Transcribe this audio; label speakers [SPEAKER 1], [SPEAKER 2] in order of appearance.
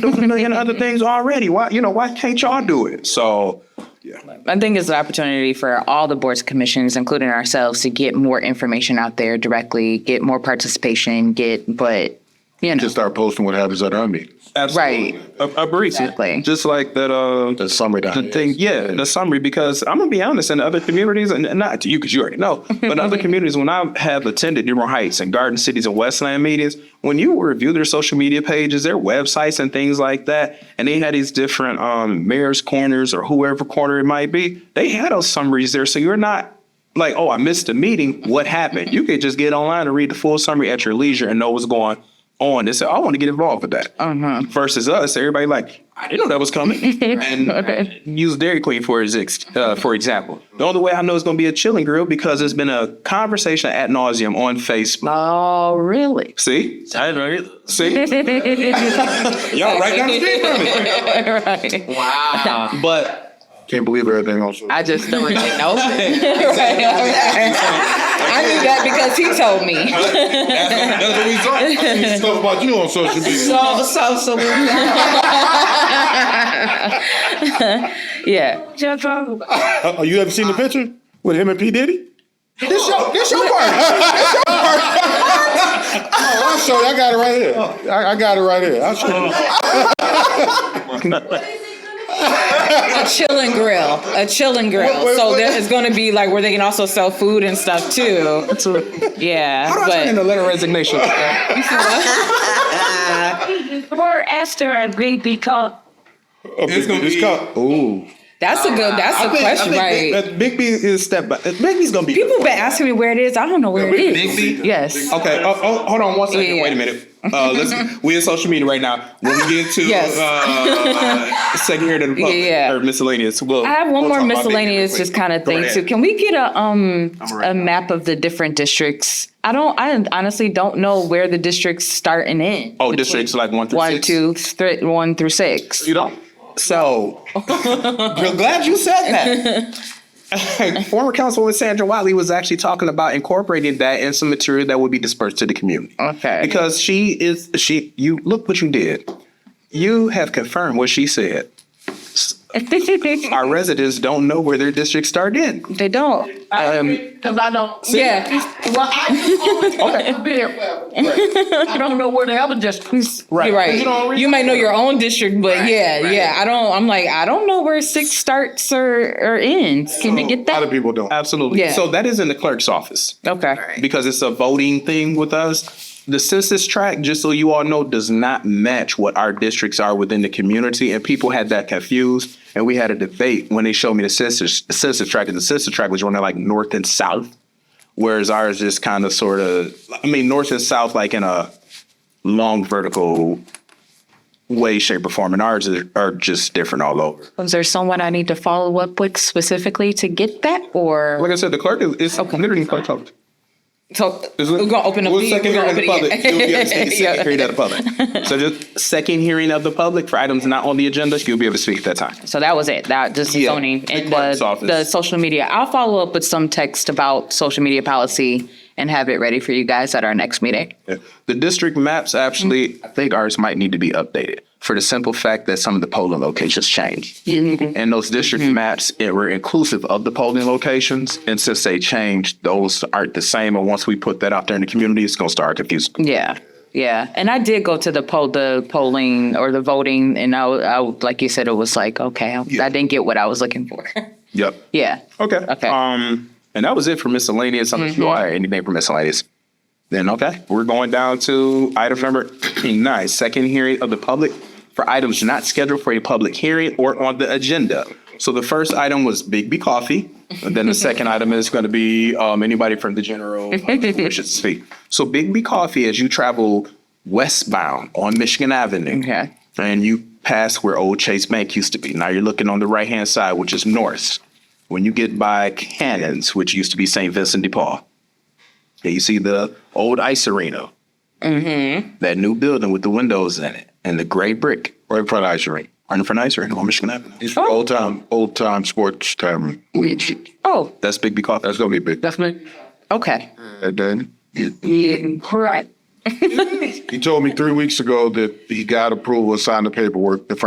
[SPEAKER 1] doing a million other things already. Why, you know, why can't y'all do it? So, yeah.
[SPEAKER 2] I think it's an opportunity for all the boards, commissions, including ourselves, to get more information out there directly, get more participation, get, but, you know,
[SPEAKER 3] Just start posting what happens at our meetings.
[SPEAKER 2] Right.
[SPEAKER 1] A, a brief,
[SPEAKER 2] Exactly.
[SPEAKER 1] just like that, uh,
[SPEAKER 3] The summary
[SPEAKER 1] the thing,
[SPEAKER 3] document.
[SPEAKER 1] yeah, the summary, because I'm gonna be honest, in other communities, and not to you, because you already know, but in other communities, when I have attended Dearborn Heights and Garden Cities and Westland meetings, when you review their social media pages, their websites and things like that, and they had these different, um, mayor's corners or whoever corner it might be, they had those summaries there, so you're not like, oh, I missed a meeting, what happened? You could just get online and read the full summary at your leisure and know what's going on. They said, I want to get involved with that. Versus us, everybody like, I didn't know that was coming. and use Dairy Queen for his ex- uh, for example. The only way I know it's going to be a chilling grill because it's been a conversation ad nauseum on Facebook.
[SPEAKER 2] oh, really?
[SPEAKER 1] See,
[SPEAKER 4] I didn't know either.
[SPEAKER 1] see, y'all right down the street from it.
[SPEAKER 2] Right.
[SPEAKER 4] Wow.
[SPEAKER 1] But
[SPEAKER 3] Can't believe everything on social.
[SPEAKER 2] I just don't really know. Right, okay. I knew that because he told me.
[SPEAKER 3] That's what we saw. I seen Stuff about you on social media.
[SPEAKER 5] Oh,
[SPEAKER 2] So, so, so. Yeah.
[SPEAKER 3] Uh,
[SPEAKER 6] Oh, you haven't seen the picture with him and P Diddy?
[SPEAKER 3] This your, this your part. This your part.
[SPEAKER 6] Oh, I'll show you. I got it right here. I, I got it right here. I'll show you.
[SPEAKER 5] A chilling grill, a chilling grill.
[SPEAKER 6] wait,
[SPEAKER 5] so
[SPEAKER 6] wait.
[SPEAKER 5] there is going to be like where they can also sell food and stuff too. Yeah,
[SPEAKER 1] how do I turn in
[SPEAKER 5] but
[SPEAKER 1] a letter of resignation?
[SPEAKER 3] Oh,
[SPEAKER 7] Before Esther and Baby called
[SPEAKER 6] It's gonna be.
[SPEAKER 1] Ooh,
[SPEAKER 5] that's a good. That's a question, right?
[SPEAKER 1] That Big B is step by. Big B's going to be
[SPEAKER 5] People been asking me where it is. I don't know where it is.
[SPEAKER 2] Yes.
[SPEAKER 1] Okay, oh, oh, hold on one second.
[SPEAKER 5] Yeah.
[SPEAKER 1] Wait a minute. Uh, let's we in social media right now. When we get to
[SPEAKER 5] Yes.
[SPEAKER 1] uh, second here to the public
[SPEAKER 5] Yeah.
[SPEAKER 1] or miscellaneous, we'll,
[SPEAKER 2] I have one
[SPEAKER 1] we'll
[SPEAKER 2] more
[SPEAKER 1] talk about that
[SPEAKER 2] miscellaneous
[SPEAKER 1] real
[SPEAKER 2] just
[SPEAKER 1] quick.
[SPEAKER 2] kind of
[SPEAKER 1] Go
[SPEAKER 2] thing
[SPEAKER 1] ahead.
[SPEAKER 2] too. Can we get a um
[SPEAKER 1] I'm right
[SPEAKER 2] a
[SPEAKER 1] now.
[SPEAKER 2] map of the different districts? I don't I honestly don't know where the districts start and end.
[SPEAKER 1] Oh, districts like one through
[SPEAKER 2] One,
[SPEAKER 1] six?
[SPEAKER 2] two, three, one through six.
[SPEAKER 1] You don't. So, I'm glad you said that. Former Councilwoman Sandra Wiley was actually talking about incorporating that in some material that would be dispersed to the community.
[SPEAKER 2] Okay.
[SPEAKER 1] Because she is she you look what you did. You have confirmed what she said. Our residents don't know where their district started in.
[SPEAKER 2] they don't.
[SPEAKER 1] Um,
[SPEAKER 7] because I don't.
[SPEAKER 5] Yeah,
[SPEAKER 7] Well, I okay. I don't know where the other districts.
[SPEAKER 1] right.
[SPEAKER 5] you're right. You might know your own district, but yeah,
[SPEAKER 4] right.
[SPEAKER 5] yeah. I don't. I'm like I don't know where
[SPEAKER 2] Six starts or, or ends. Can we get
[SPEAKER 3] A lot
[SPEAKER 2] that?
[SPEAKER 3] of people don't.
[SPEAKER 1] Absolutely.
[SPEAKER 2] Yeah.
[SPEAKER 1] So that is in the clerk's office
[SPEAKER 2] Okay.
[SPEAKER 1] because it's a voting thing with us. The census tract, just so you all know, does not match what our districts are within the community, and people had that confused. And we had a debate when they showed me the census census tract, and the census tract was running like north and south, whereas ours is kind of sort of, I mean, north and south like in a long vertical way, shape, or form, and ours are, are just different all over.
[SPEAKER 2] Is there someone I need to follow up with specifically to get that or?
[SPEAKER 1] Like I said, the clerk is it's literally in clerk's office.
[SPEAKER 5] So we're gonna open up.
[SPEAKER 1] Well,
[SPEAKER 5] the-
[SPEAKER 1] second
[SPEAKER 5] we're gonna
[SPEAKER 1] hearing of the
[SPEAKER 5] open
[SPEAKER 1] public.
[SPEAKER 5] it.
[SPEAKER 1] You'll be able to
[SPEAKER 5] Yeah.
[SPEAKER 1] speak at second hearing of the public. So just second hearing of the public for items not on the agenda, you'll be able to speak at that time.
[SPEAKER 2] So that was it. That just
[SPEAKER 1] Yeah,
[SPEAKER 2] zoning
[SPEAKER 1] the
[SPEAKER 2] and
[SPEAKER 1] clerk's
[SPEAKER 2] the,
[SPEAKER 1] office.
[SPEAKER 2] the social media. I'll follow up with some text about social media policy and have it ready for you guys at our next meeting.
[SPEAKER 1] The district maps actually,
[SPEAKER 5] Mm-hmm.
[SPEAKER 1] I think ours might need to be updated for the simple fact that some of the polling locations changed.
[SPEAKER 5] Mm-hmm.
[SPEAKER 1] And those district maps it were inclusive of the polling locations. And since they changed, those aren't the same. And once we put that out there in the community, it's gonna start confusing.
[SPEAKER 2] Yeah, yeah. And I did go to the poll, the polling or the voting, and I, I like you said, it was like, okay, I, I didn't get what I was looking for.
[SPEAKER 1] Yep.
[SPEAKER 2] yeah.
[SPEAKER 1] Okay.
[SPEAKER 2] Okay.
[SPEAKER 1] Um, and that was it for miscellaneous. Unless
[SPEAKER 5] Mm-hmm.
[SPEAKER 1] you all had anything for miscellaneous, then okay, we're going down to item number nine, second hearing of the public for items not scheduled for a public hearing or on the agenda. So the first item was Big B Coffee. And then the second item is going to be um, anybody from the general public who wishes to speak. So Big B Coffee, as you travel westbound on Michigan Avenue,
[SPEAKER 2] Okay.
[SPEAKER 1] and you pass where old Chase Bank used to be. Now you're looking on the right hand side, which is north. When you get by Cannons, which used to be St. Vincent de Paul, there you see the old ice arena. Mm-hmm. That new building with the windows in it and the gray brick
[SPEAKER 3] Right in front of ice rink.
[SPEAKER 1] right in front of ice arena on Michigan Avenue.
[SPEAKER 3] It's old time, old time sports time.
[SPEAKER 2] Oh,
[SPEAKER 1] That's Big B Coffee.
[SPEAKER 3] That's gonna be big. Mm.
[SPEAKER 2] okay.
[SPEAKER 3] And then,
[SPEAKER 7] Right.
[SPEAKER 3] He told me three weeks ago that he got approval, signed the paperwork, the